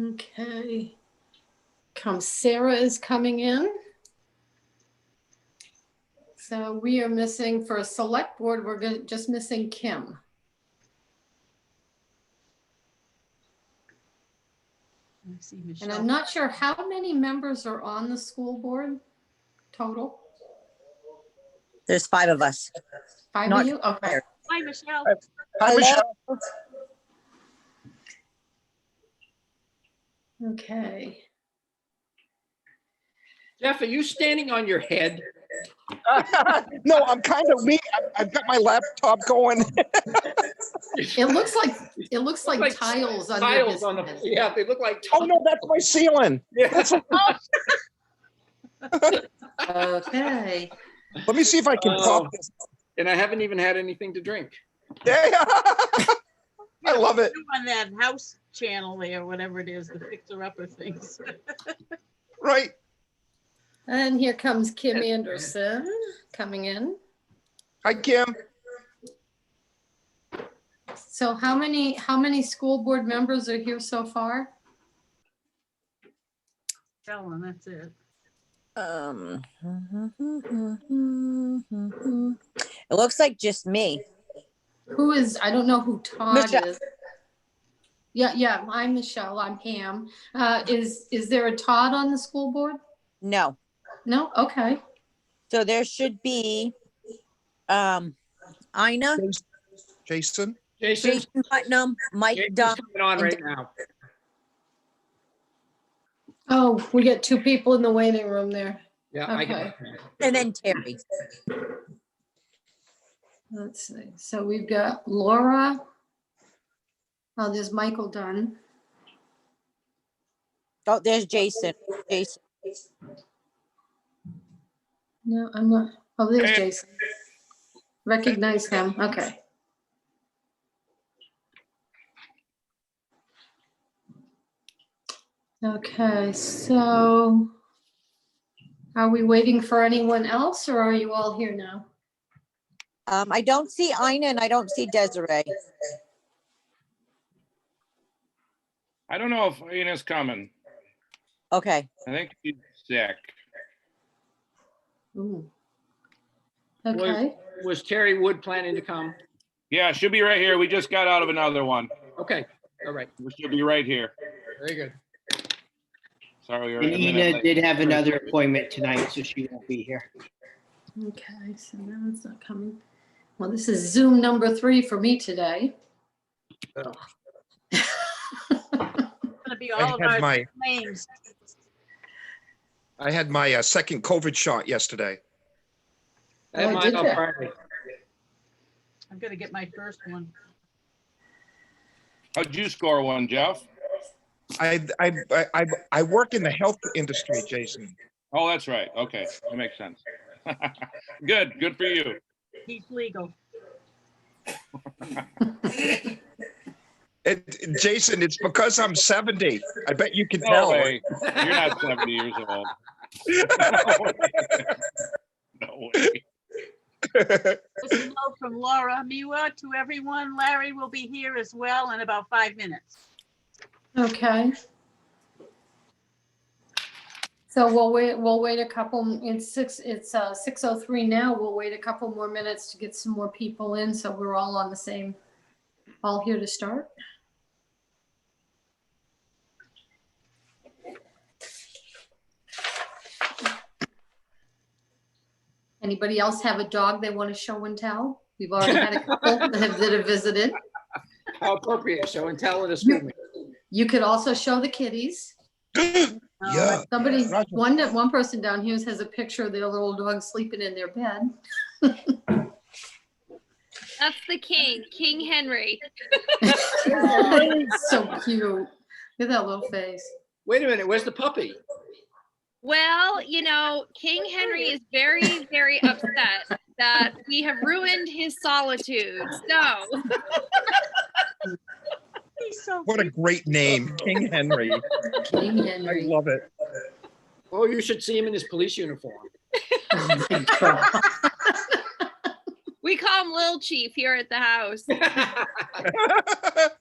Okay. Come, Sarah is coming in. So we are missing, for a select board, we're go- just missing Kim. I see And I'm Michelle. not sure how many members are on the school board total? There's five of us. Five Not of you? Okay. sure. Hi, Michelle. Hi, Michelle. Okay. Jeff, are you standing on your head? No, I'm kind of weak. I- I've got my laptop going. It looks like, it looks like Like tiles under his Tiles on the, head. yeah, they look like. Oh, no, that's my ceiling. tiles. Okay. Let me see if I can Oh. pop this. And I haven't even had anything to drink. Yeah. I love it. On that house channel there, whatever it is, the fixer upper things. Right. And here comes Kim Anderson coming in. Hi, Kim. So how many, how many school board members are here so far? Michelle, and that's it. Um, It looks like just me. Who is, I don't know who Todd Michelle. is. Yeah, yeah, I'm Michelle, I'm Pam. Uh, is, is there a Todd on the school board? No, No, okay. so there should be, um, Ina, Jason. Jason, Jason Putnam, Mike Dunn. Jason's coming on right now. Oh, we got two people in the waiting room there. Yeah, I can. And then Terry. Let's see, so we've got Laura. Oh, there's Michael Dunn. Oh, there's Jason. Jason. No, I'm not, oh, there's Eh. Jason. Recognize him, okay. Okay, so are we waiting for anyone else or are you all here now? Um, I don't see Ina and I don't see Desiree. I don't know if Ina's coming. Okay, I think she's sick. Ooh. Well- Okay, Was Terry Wood planning to come? Yeah, she'll be right here. We just got out of another one. Okay, all right, She'll be right here. very good. Sorry. we were And a minute Ina uh, late. did have another appointment tonight, so she won't be here. okay, so now it's not coming. Well, this is Zoom number three for me today. It's Gonna be I all of had our my, claims. I had my uh, second COVID shot yesterday. I Oh, had did mine on ya? Friday. I'm gonna get my first one. How'd you score one, Jeff? I, I, I, I, I work in the health industry, Jason. Oh, that's right. Okay, that makes sense. Good, good for you. He's legal. It, it- Jason, it's because I'm 70. I bet you can No tell. way. You're not 70 years old. No way. This is love from Laura Miwa to everyone. Larry will be here as well in about five minutes. Okay. So we'll wait, we'll wait a couple, it's six, it's uh, 6:03 now. We'll wait a couple more minutes to get some more people in, so we're all on the same, all here to start. Anybody else have a dog they want to show and tell? We've already had a couple that have that have visited. How appropriate, so intelligent. woman. You could also show the kitties. Um, Yeah. Somebody, Roger. one, one person down here has a picture of their little dog sleeping in their bed. That's the king, King Henry. So cute. Look at that little face. Wait a minute, where's the puppy? Well, you know, King Henry is very, very upset that we have ruined his solitude. So, He's so What a great name, King Henry. King I Henry. love it. Oh, you should see him in his police uniform. Oh my God. we call him Lil Chief here at the house. That's